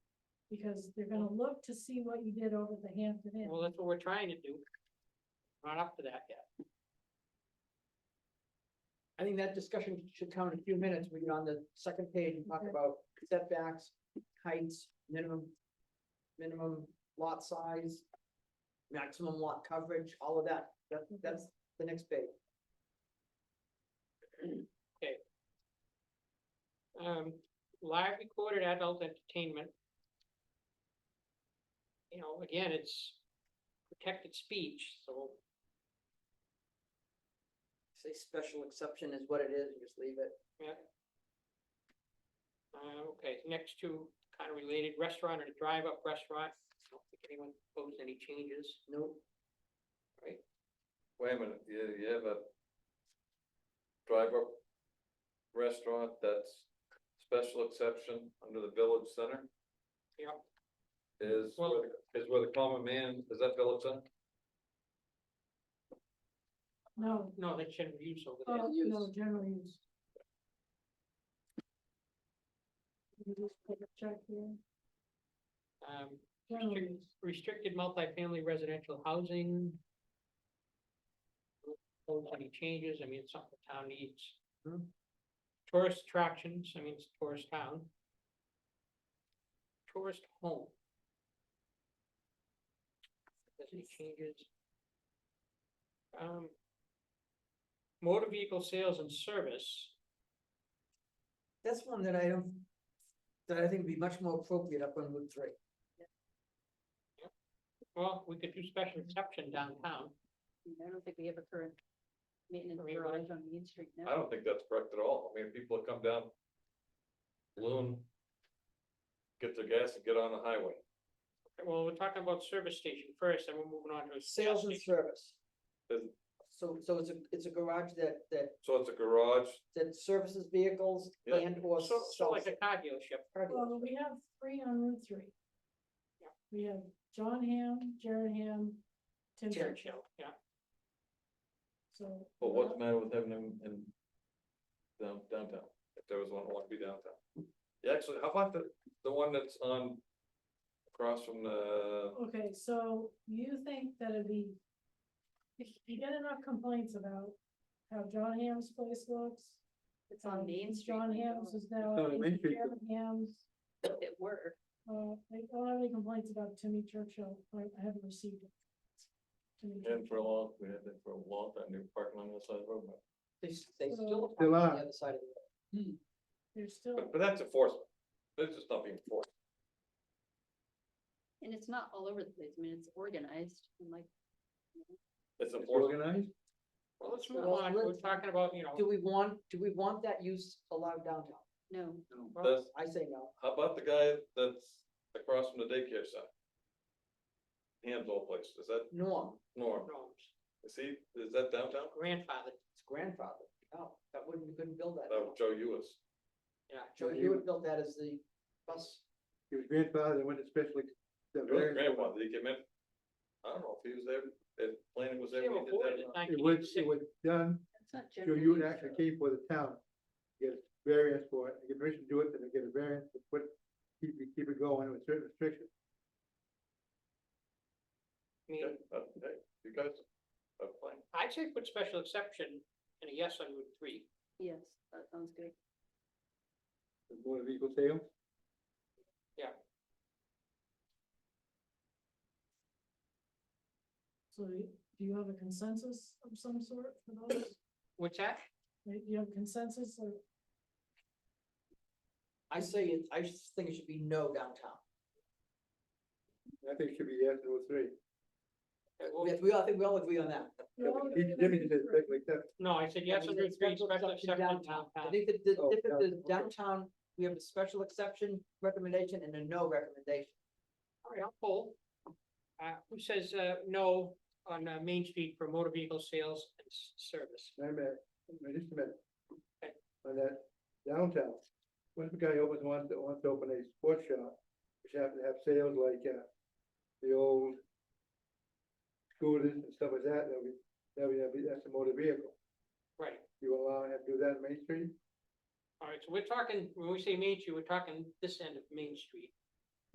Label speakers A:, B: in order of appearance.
A: because they're gonna look to see what you did over the Hampton Inn.
B: Well, that's what we're trying to do. Not up to that yet. I think that discussion should come in a few minutes. We get on the second page and talk
A: Okay.
B: about setbacks, heights, minimum. Minimum lot size, maximum lot coverage, all of that. That, that's the next page. Okay. Um, live recorded adult entertainment. You know, again, it's protected speech, so.
C: Say special exception is what it is, and just leave it.
B: Uh, okay, next two kind of related, restaurant or drive-up restaurant, I don't think anyone proposed any changes.
C: Nope.
D: Wait a minute, you, you have a drive-up restaurant that's special exception under the village center?
B: Yep.
D: Is, where
B: Well-
D: the- is where the common man, is that village center?
A: No,
B: No, they shouldn't be used over there.
A: oh, no, general use. You just put a check here,
B: Um,
A: general use.
B: restricted multifamily residential housing. Don't want Any changes, I mean, it's something the town needs.
C: Hmm.
B: Tourist attractions, I mean, it's a tourist town. Tourist home. There's any changes. Um. Motor vehicle sales and service,
C: That's one that I don't, that I think would be much more appropriate up on Route three.
B: well, we could do special exception downtown,
E: I don't think we have a current maintenance
B: Or maybe
E: garage on Main Street
D: I
E: now.
D: don't think that's correct at all. I mean, people that come down Loon, get their gas and get on the highway.
B: well, we're talking about service station first, and we're moving on to. a gas
C: Sales and
B: station.
C: service.
D: Is-
C: So, so it's a, it's a garage that, that,
D: So it's a garage,
C: that services vehicles
D: Yeah.
C: and or
B: So, so like
C: sells
B: a car dealership,
C: cargo.
A: Well, we have three on Route three.
B: Yeah.
A: We have John Ham, Jared Ham, Tim
C: Jared.
A: Churchill,
B: yeah.
A: so.
D: but what's the matter with having them in down- downtown? If there was one, I want to be downtown. Yeah, actually, how about the, the one that's on across from the
A: Okay, so you think that it'd be, if you get enough complaints about how John Ham's place looks.
E: It's on
A: um,
E: Main Street.
A: John
E: like,
A: Ham's
E: oh,
A: is now.
F: It's on Main Street.
A: Jared Ham's,
E: It were,
A: uh, I don't have any complaints about Timmy Churchill, I I haven't received it. Timmy
D: And for a
A: Churchill.
D: long, we had that for a long time, they were parking on the other side of the road, but-
C: They, s- they
F: Mm.
C: still.
F: Still
C: park on
F: are.
C: The other side of the road.
A: There's still,
D: but, but that's enforcement. That's just not being enforced.
E: and it's not all over the place, I mean, it's organized, and like,
D: It's enforcement.
F: Organized?
B: well, let's
C: Well,
B: move on, we're
C: let's-
B: talking about, you know,
C: Do we want, do we want that use allowed downtown?
E: no,
B: well,
D: That's,
C: I say no.
D: how about the guy that's across from the daycare center? Hands all place, is that
C: Norm,
D: Norm?
B: norms,
D: Is he, is that downtown?
B: grandfather,
C: it's grandfather. No, that wouldn't, you couldn't build that.
D: That was Joe Uis.
B: yeah.
C: Joe, you would build that as the bus.
F: He was grandfathered, went to special. the variance.
D: Grandfather, he came in. I don't know if he was there, if planning was there
B: They were
D: when he did
B: born
D: that.
B: in
D: or not.
B: 1986.
F: It was, it was done,
E: it's not
F: so
E: general.
F: you
E: use,
F: actually
E: so-
F: came for the town. Get a variance for it, get permission to do it, then they get a variance to put, keep, keep it going with certain restrictions.
B: I mean,
D: Okay, uh, hey, you guys uh, are playing.
B: I'd say put special exception and a yes on Route three,
E: Yes, that sounds good.
F: The motor vehicle sales,
A: so do you have a consensus of some sort for those?
B: what's that?
A: Do you have consensus or?
C: I say, it- I just think it should be no downtown.
F: I think should be yes or three.
B: Okay, well,
C: Yes, we all, I think we all agree on that.
F: Each Jimmy says special except,
B: No, I said yes on Route three,
C: Special
B: special
C: exception
B: exception
C: downtown. I
B: downtown,
C: think that the
F: Oh,
C: difference is
F: downtown, okay.
C: downtown, we have a special exception recommendation and a no recommendation.
B: all right, I'll poll. Uh, who says, uh, no on, uh, Main Street for motor vehicle sales and s- service?
F: wait a minute, wait just a minute.
B: Okay.
F: On that downtown, what if a guy opens, wants, to- wants to open a sports shop, which happen to have sales like, uh, the old scooters and stuff like that, that we, that we, that'd be- that's a motor vehicle.
B: Right,
F: You allow him to do that in Main Street?
B: all right, so we're talking, when we say Main Street, we're talking this end of Main Street,